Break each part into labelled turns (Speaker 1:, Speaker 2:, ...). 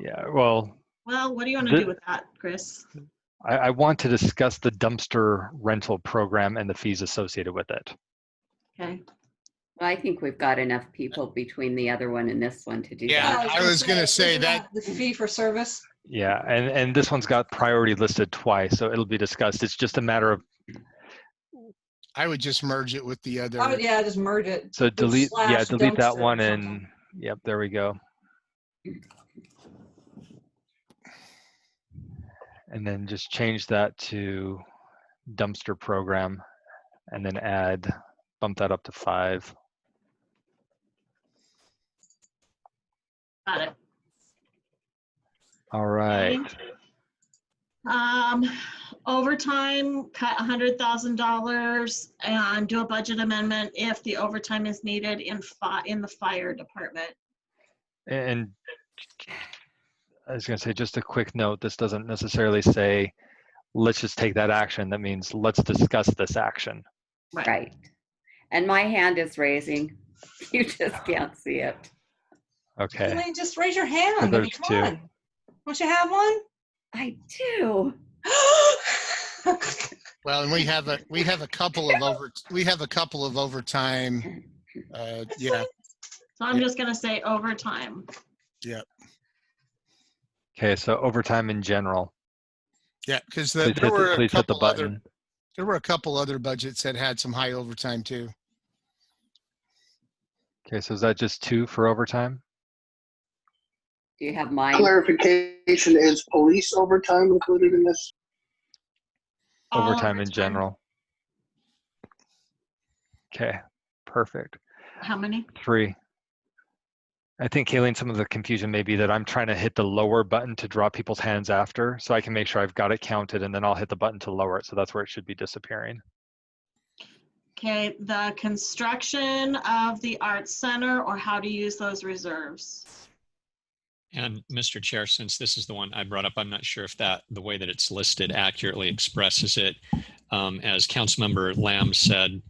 Speaker 1: Yeah, well,
Speaker 2: Well, what do you want to
Speaker 1: The-
Speaker 2: do with that, Chris?
Speaker 1: I, I want to discuss the dumpster rental program and the fees associated with it.
Speaker 2: Okay.
Speaker 3: Well, I think we've got enough people between the other one and this one to do
Speaker 4: Yeah,
Speaker 3: that.
Speaker 4: I was gonna say that-
Speaker 5: The fee for service,
Speaker 1: Yeah, and, and this one's got priority listed twice, so it'll be discussed. It's just a matter of,
Speaker 4: I would just merge it with the other.
Speaker 5: I would, Oh, yeah, just merge it.
Speaker 1: so delete, yeah,
Speaker 5: slash
Speaker 1: delete that
Speaker 5: dumpster or
Speaker 1: one and,
Speaker 5: something.
Speaker 1: yep, there we go. And then just change that to dumpster program and then add, bump that up to five.
Speaker 2: Got it.
Speaker 1: All right.
Speaker 2: Um, overtime, cut hundred thousand dollars and do a budget amendment if the overtime is needed in fi- in the fire department.
Speaker 1: And I was going to say, just a quick note, this doesn't necessarily say, let's just take that action. That means let's discuss this action.
Speaker 3: Right. And my hand is raising. You just can't see it.
Speaker 1: Okay.
Speaker 5: Elaine, just raise your hand. I mean,
Speaker 1: there's
Speaker 5: come
Speaker 1: two.
Speaker 5: on. Don't you have one?
Speaker 3: I do.
Speaker 4: Well, and we have a, we have a couple of over, we have a couple of overtime. Uh, yeah,
Speaker 2: So I'm just gonna say overtime.
Speaker 1: Okay. So overtime in general.
Speaker 4: yeah, because
Speaker 1: Please
Speaker 4: the,
Speaker 1: hit
Speaker 4: there were
Speaker 1: the,
Speaker 4: a
Speaker 1: please hit the
Speaker 4: couple other,
Speaker 1: button.
Speaker 4: there were a couple other budgets that had some high overtime too.
Speaker 1: Okay. So is that just two for overtime?
Speaker 3: Do you have mine?
Speaker 6: Clarification, is police overtime included in this?
Speaker 2: All
Speaker 1: Overtime in general. Okay. Perfect.
Speaker 2: How many?
Speaker 1: Three. I think Kayleen, some of the confusion may be that I'm trying to hit the lower button to draw people's hands after so I can make sure I've got it counted and then I'll hit the button to lower it. So that's where it should be disappearing.
Speaker 2: Okay, the construction of the arts center or how to use those reserves.
Speaker 7: And Mr. Chair, since this is the one I brought up, I'm not sure if that, the way that it's listed accurately expresses it. Um, As Councilmember Lamb said,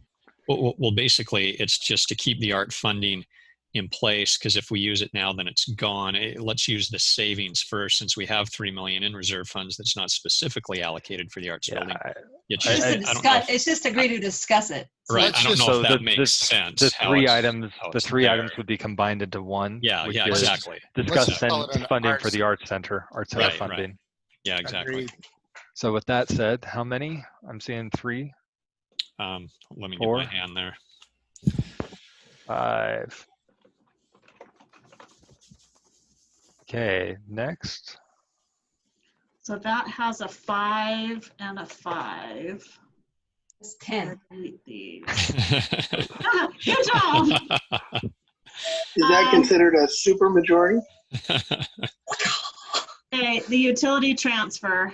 Speaker 7: well- well, well, basically, it's just to keep the art funding in place, because if we use it now, then it's gone. Eh, Let's use the savings first, since we have 3 million in reserve funds that's not specifically allocated for the arts
Speaker 1: Yeah.
Speaker 7: building.
Speaker 1: I-
Speaker 7: It's
Speaker 1: I-
Speaker 5: It's just
Speaker 7: just-
Speaker 1: I
Speaker 5: to
Speaker 7: I don't know
Speaker 5: discuss,
Speaker 7: if-
Speaker 5: it's just agree to discuss it.
Speaker 7: Right,
Speaker 4: let's
Speaker 7: I don't
Speaker 4: just-
Speaker 7: know
Speaker 1: so
Speaker 7: if
Speaker 1: the-
Speaker 7: that
Speaker 1: the-
Speaker 7: makes sense.
Speaker 1: The
Speaker 7: how
Speaker 1: three
Speaker 7: it's-
Speaker 1: items,
Speaker 7: how
Speaker 1: the
Speaker 7: it's
Speaker 1: three items
Speaker 7: there.
Speaker 1: would be combined into one.
Speaker 7: Yeah,
Speaker 1: which
Speaker 7: yeah,
Speaker 1: is
Speaker 7: exactly.
Speaker 1: Discuss
Speaker 4: just call it
Speaker 1: sen-
Speaker 4: an
Speaker 1: funding for
Speaker 4: arts-
Speaker 1: the Arts Center, Arts Center
Speaker 7: Right, right.
Speaker 1: funding.
Speaker 7: Yeah, exactly.
Speaker 4: Agreed.
Speaker 1: So with that said, how many? I'm seeing three,
Speaker 7: Um, Let me get my
Speaker 1: Four.
Speaker 7: hand there.
Speaker 1: five. Okay, next.
Speaker 2: So that has a five and a five.
Speaker 5: It's 10.
Speaker 2: Delete these. Ah, Good job.
Speaker 6: Is that
Speaker 2: Um,
Speaker 6: considered a supermajority?
Speaker 2: Okay, the utility transfer.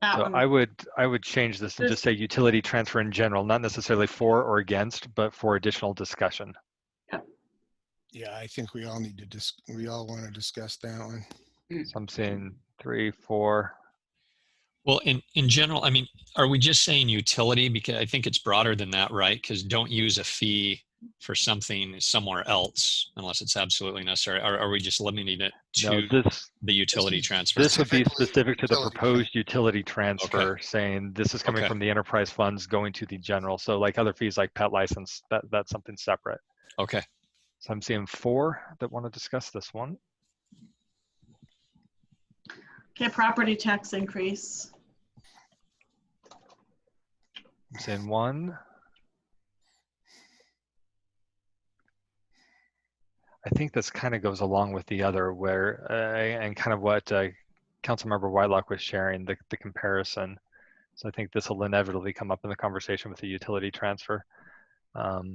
Speaker 2: That
Speaker 1: So
Speaker 2: one.
Speaker 1: I would, I would change this and just say utility transfer in general, not necessarily for or against, but for additional discussion.
Speaker 4: Yeah, I think we all need to dis, we all want to discuss that one.
Speaker 1: So I'm seeing three, four.
Speaker 7: Well, in, in general, I mean, are we just saying utility? Because I think it's broader than that, right? Because don't use a fee for something somewhere else unless it's absolutely necessary. Are, are we just limiting it
Speaker 1: No,
Speaker 7: to
Speaker 1: this,
Speaker 7: the utility transfer?
Speaker 1: This would be
Speaker 4: Specifically
Speaker 1: specific to the
Speaker 4: utility
Speaker 1: proposed utility transfer, saying this is coming
Speaker 7: Okay.
Speaker 1: from the enterprise funds going to the general. So like other fees like pet license, that, that's something separate.
Speaker 7: Okay.
Speaker 1: So I'm seeing four that want to discuss this one.
Speaker 2: Okay, property tax increase.
Speaker 1: I'm seeing one. I think this kind of goes along with the other where, uh, and kind of what uh, Councilmember Whitelock was sharing, the, the comparison. So I think this will inevitably come up in the conversation with the utility transfer. Um,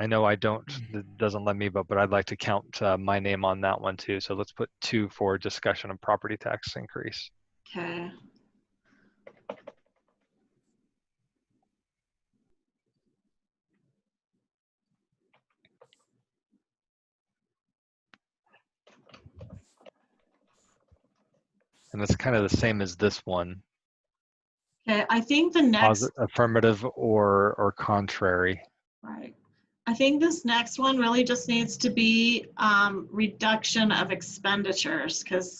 Speaker 1: I know I don't, it doesn't let me, but, but I'd like to count uh, my name on that one too. So let's put two for discussion of property tax increase.
Speaker 2: Okay.
Speaker 1: And that's kind of the same as this one.
Speaker 2: Okay, I think the next,
Speaker 1: Posit- affirmative or or contrary.
Speaker 2: right. I think this next one really just needs to be um, reduction of expenditures because